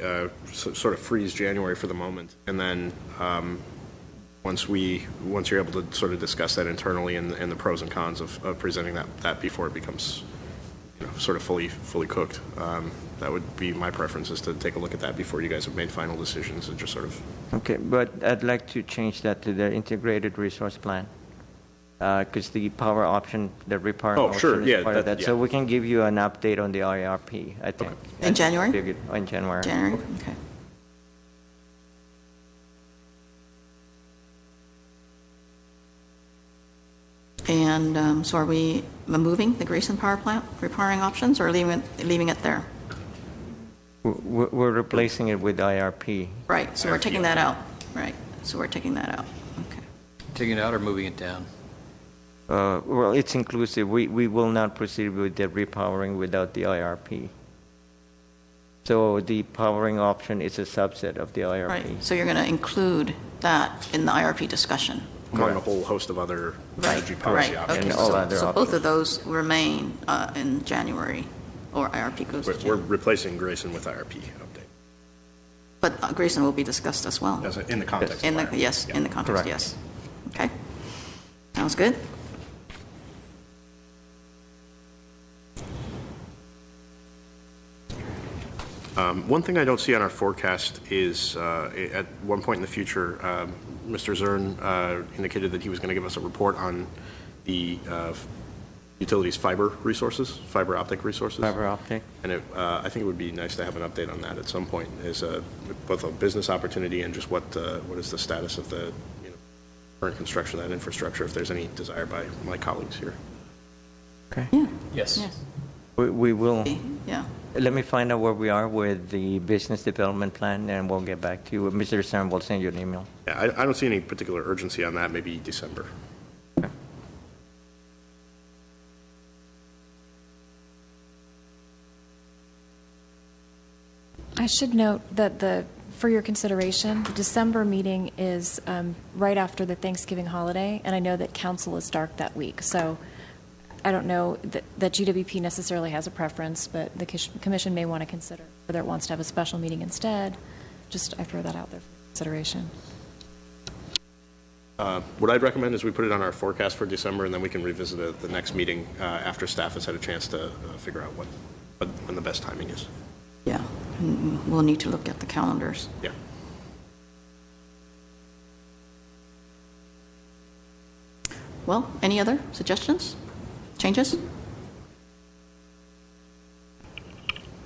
uh, so- sort of freeze January for the moment, and then um, once we, once you're able to sort of discuss that internally and and the pros and cons of of presenting that, that before it becomes, you know, sort of fully, fully cooked, um, that would be my preference, is to take a look at that before you guys have made final decisions and just sort of Okay, but I'd like to change that to the integrated resource plan. Because the power option, the repower Oh, sure, option yeah, is part of that- that. So yeah. we can give you an update on the IRP, I think. In January? Give you- In January. January, okay. And um, so are we moving the Grayson Power Plant, repairing options, or leaving it, leaving it there? W- w- We're replacing it with IRP. Right, so we're taking that out, right, so we're taking that out, okay. Taking it out or moving it down? Uh, Well, it's inclusive. We, we will not proceed with the repowering without the IRP. So the powering option is a subset of the IRP. Right, so you're going to include that in the IRP discussion? among a whole host of other Right, energy policy right, options. okay, And all so, other so both options. of those remain uh, in January, or IRP goes to We're- We're January. replacing Grayson with IRP update, But uh, Grayson will be discussed as well. as a- in the context of In the, IRP. yes, Yeah. in the context, Correct. yes. Okay. Sounds good. One thing I don't see on our forecast is, uh, at one point in the future, um, Mr. Zern uh, indicated that he was going to give us a report on the uh, utilities fiber resources, fiber optic resources. Fiber optic. And it, uh, I think it would be nice to have an update on that at some point, is uh, both a business opportunity and just what, uh, what is the status of the, you know, current construction of that infrastructure, if there's any desire by my colleagues here. Okay. Yeah. Yes. We, we will. Yeah. Let me find out where we are with the business development plan, and we'll get back to you. Mr. Stern will send you an email. Yeah, I, I don't see any particular urgency on that, maybe December. I should note that the, for your consideration, the December meeting is um, right after the Thanksgiving holiday, and I know that council is dark that week, so I don't know that that GWP necessarily has a preference, but the kish- commission may want to consider whether it wants to have a special meeting instead. Just, I throw that out there for consideration. Uh, What I'd recommend is we put it on our forecast for December, and then we can revisit it at the next meeting uh, after staff has had a chance to uh, figure out what, what- when the best timing is. Yeah. Mm, We'll need to look at the calendars. Yeah. Well, any other suggestions? Changes?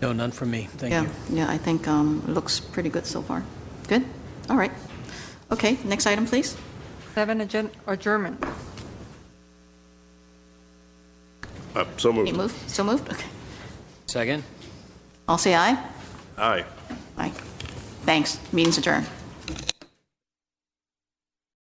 No, none from me. Thank Yeah, you. yeah, I think um, it looks pretty good so far. Good? All right. Okay, next item, please. Seven adjourn- adjournment. Uh, So You moved. move, still moved? Okay. Second? I'll say aye. Aye. Aye. Thanks. Meeting's adjourned.